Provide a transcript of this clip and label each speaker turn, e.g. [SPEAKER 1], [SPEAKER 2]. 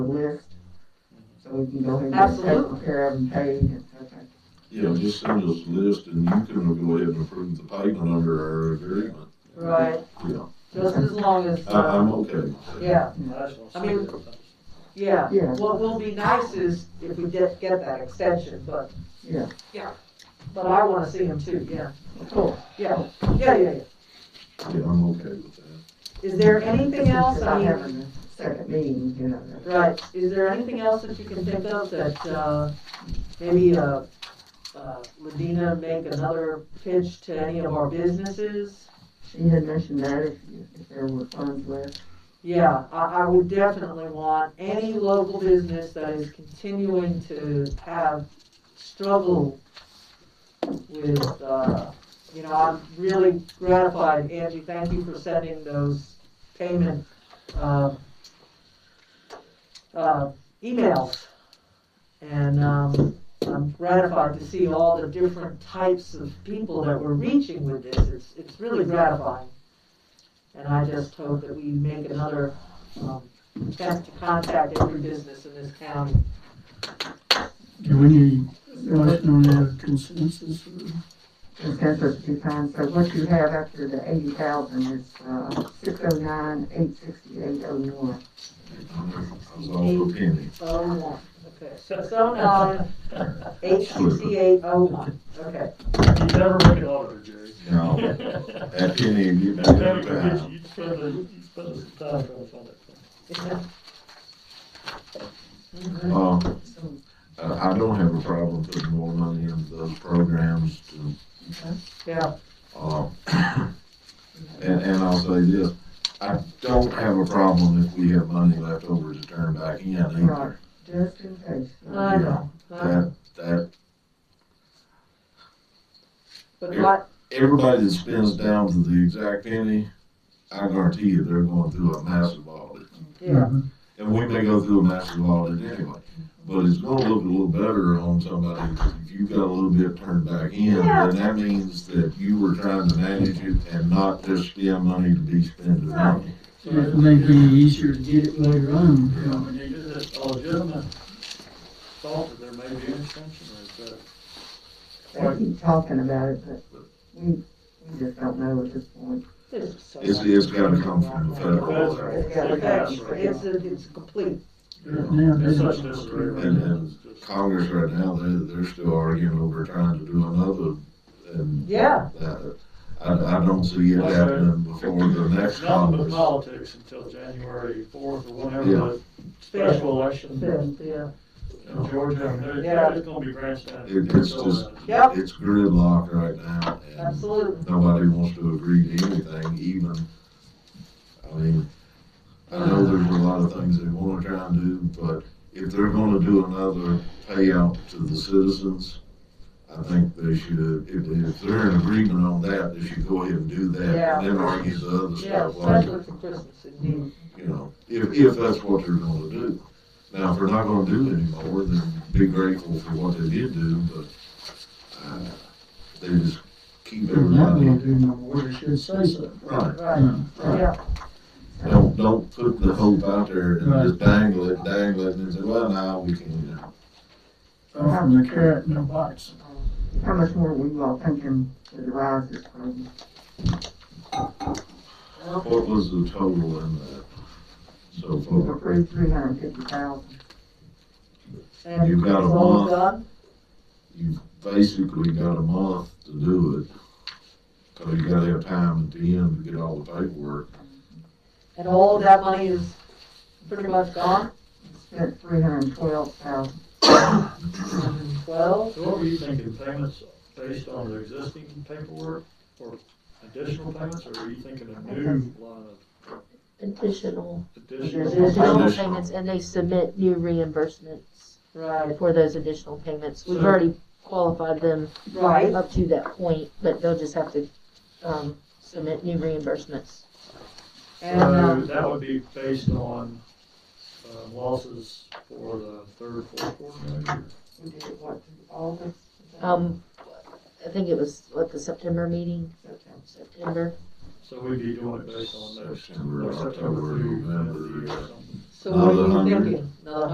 [SPEAKER 1] so we can go ahead and
[SPEAKER 2] Absolutely.
[SPEAKER 1] take care of and pay and such.
[SPEAKER 3] Yeah, just send us a list and you can go ahead and approve the payment under our agreement.
[SPEAKER 2] Right,
[SPEAKER 3] Yeah,
[SPEAKER 2] just as long as,
[SPEAKER 3] I, I'm
[SPEAKER 2] uh,
[SPEAKER 3] okay with that.
[SPEAKER 2] yeah, I mean, yeah.
[SPEAKER 1] Yeah.
[SPEAKER 2] What will be nice is if we get, get that extension, but.
[SPEAKER 1] Yeah.
[SPEAKER 2] Yeah, but I wanna see him too, yeah,
[SPEAKER 1] Cool.
[SPEAKER 2] yeah, yeah, yeah, yeah.
[SPEAKER 3] Yeah, I'm okay with that.
[SPEAKER 2] Is there anything else,
[SPEAKER 1] Because
[SPEAKER 2] I
[SPEAKER 1] I have
[SPEAKER 2] mean,
[SPEAKER 1] a second meeting, you know. that-
[SPEAKER 2] right, is there anything else that you can think of that, uh, maybe, uh, uh, Medina make another pitch to any of our businesses?
[SPEAKER 1] She had mentioned that if, you- if there were funds left.
[SPEAKER 2] Yeah, I, I would definitely want any local business that is continuing to have struggle with, uh, you know, I'm really gratified, Angie, thank you for sending those payment, um, uh, emails. And, um, I'm gratified to see all the different types of people that we're reaching with this, it's, it's really gratifying. And I just hope that we make another um, attempt to contact every business in this county.
[SPEAKER 4] Do we need a motion on the consensus?
[SPEAKER 1] Consensus two times, so what you have after the eighty thousand is, uh, six oh nine, eight sixty-eight oh one.
[SPEAKER 3] I was all a penny.
[SPEAKER 2] Oh, one, okay. So uh, nine, eight sixty-eight oh one, okay.
[SPEAKER 5] You never make an auditor, Jerry.
[SPEAKER 3] No,
[SPEAKER 5] You
[SPEAKER 3] that penny, you know,
[SPEAKER 5] never
[SPEAKER 3] that
[SPEAKER 5] get,
[SPEAKER 3] time.
[SPEAKER 5] you spend, the- you spend some time trying to find that. thing.
[SPEAKER 3] Uh, I, I don't have a problem putting more money into those programs to
[SPEAKER 2] Yeah,
[SPEAKER 3] Uh, And, and I'll say this, I don't have a problem if we have money left over to turn back in either.
[SPEAKER 1] Just in case.
[SPEAKER 2] I know. Uh,
[SPEAKER 3] That, that,
[SPEAKER 2] But what,
[SPEAKER 3] everybody that spends down to the exact penny, I guarantee you, they're going through a massive audit.
[SPEAKER 2] yeah,
[SPEAKER 3] And we may go through a massive audit anyway, but it's gonna look a little better on somebody, if you've got a little bit turned back in,
[SPEAKER 2] Yeah.
[SPEAKER 3] then that means that you were trying to manage it and not just spend money to be spending money.
[SPEAKER 4] So It may be easier to get it later on.
[SPEAKER 5] You know, when you do this, a legitimate thought that there may be an extension, or is that?
[SPEAKER 1] They keep talking about it, but we, we just don't know at this point.
[SPEAKER 2] this is so.
[SPEAKER 3] It's, it's gotta come from the federal. level.
[SPEAKER 2] It's gotta go. It's, it's complete,
[SPEAKER 4] Now,
[SPEAKER 5] It's
[SPEAKER 4] that's-
[SPEAKER 5] such a disarray right
[SPEAKER 3] And
[SPEAKER 5] now.
[SPEAKER 3] then
[SPEAKER 5] It's just-
[SPEAKER 3] Congress right now, they, they're still arguing over trying to do another, and
[SPEAKER 2] yeah,
[SPEAKER 3] that, I, I don't see it happening before the next
[SPEAKER 5] Nothing but
[SPEAKER 3] Congress.
[SPEAKER 5] politics until January fourth or whenever
[SPEAKER 3] Yeah.
[SPEAKER 5] the special election
[SPEAKER 2] yeah,
[SPEAKER 5] in Georgia, and
[SPEAKER 2] Yeah.
[SPEAKER 5] there- it's gonna be grandstanding.
[SPEAKER 3] It- it's just-
[SPEAKER 2] yep,
[SPEAKER 3] It's gridlock right now, and
[SPEAKER 2] absolutely.
[SPEAKER 3] nobody wants to agree to anything, even, I mean, I know there's a lot of things they wanna try and do, but if they're gonna do another payout to the citizens, I think they should, if, if they're in agreement on that, they should go ahead and do that, and then argue the other
[SPEAKER 2] Yeah,
[SPEAKER 3] stuff later.
[SPEAKER 2] especially for Christmas, indeed,
[SPEAKER 3] you know, if, if that's what they're gonna do. Now, if they're not gonna do it anymore, then be grateful for what they did do, but, uh, they just keep
[SPEAKER 4] That will
[SPEAKER 3] everybody.
[SPEAKER 4] do my order, should say so.
[SPEAKER 3] Right,
[SPEAKER 2] right,
[SPEAKER 4] Mm-hmm.
[SPEAKER 2] yeah,
[SPEAKER 3] don't, don't put the hope out there and just dangle it, dangle it, and say, well, now we can, you know.
[SPEAKER 4] Far from the carrot in the box.
[SPEAKER 1] How much more we all thinking that arises from
[SPEAKER 3] What was the total in that so
[SPEAKER 1] We've
[SPEAKER 3] far?
[SPEAKER 1] approved three hundred and fifty thousand.
[SPEAKER 2] and
[SPEAKER 3] You've
[SPEAKER 2] it's
[SPEAKER 3] got a
[SPEAKER 2] all
[SPEAKER 3] month.
[SPEAKER 2] done,
[SPEAKER 3] You've basically got a month to do it. Cause you gotta have time at the end to get all the paperwork.
[SPEAKER 2] and all of that money is pretty much gone,
[SPEAKER 1] Spent three hundred and twelve thousand.
[SPEAKER 2] twelve,
[SPEAKER 5] So what were you thinking, payments based on the existing paperwork, or additional payments, or are you thinking a new line
[SPEAKER 6] additional,
[SPEAKER 5] of
[SPEAKER 6] there's
[SPEAKER 5] additional?
[SPEAKER 6] additional
[SPEAKER 3] Additional.
[SPEAKER 6] payments, and they submit new reimbursements
[SPEAKER 2] right,
[SPEAKER 6] for those additional payments. We've
[SPEAKER 5] So-
[SPEAKER 6] already qualified them
[SPEAKER 2] right.
[SPEAKER 6] up to that point, but they'll just have to, um, submit new reimbursements.
[SPEAKER 2] And,
[SPEAKER 5] So
[SPEAKER 2] um,
[SPEAKER 5] that would be based on uh, losses for the third, fourth quarter, maybe?
[SPEAKER 1] We did it, what, through August?
[SPEAKER 6] Um, I think it was, what, the September meeting,
[SPEAKER 1] September.
[SPEAKER 6] September?
[SPEAKER 5] So we'd be doing it based on those.
[SPEAKER 3] September,
[SPEAKER 5] September
[SPEAKER 3] October,
[SPEAKER 5] through
[SPEAKER 3] November,
[SPEAKER 5] November or something.
[SPEAKER 2] so what
[SPEAKER 3] Another
[SPEAKER 2] are you
[SPEAKER 3] hundred.
[SPEAKER 2] thinking? Another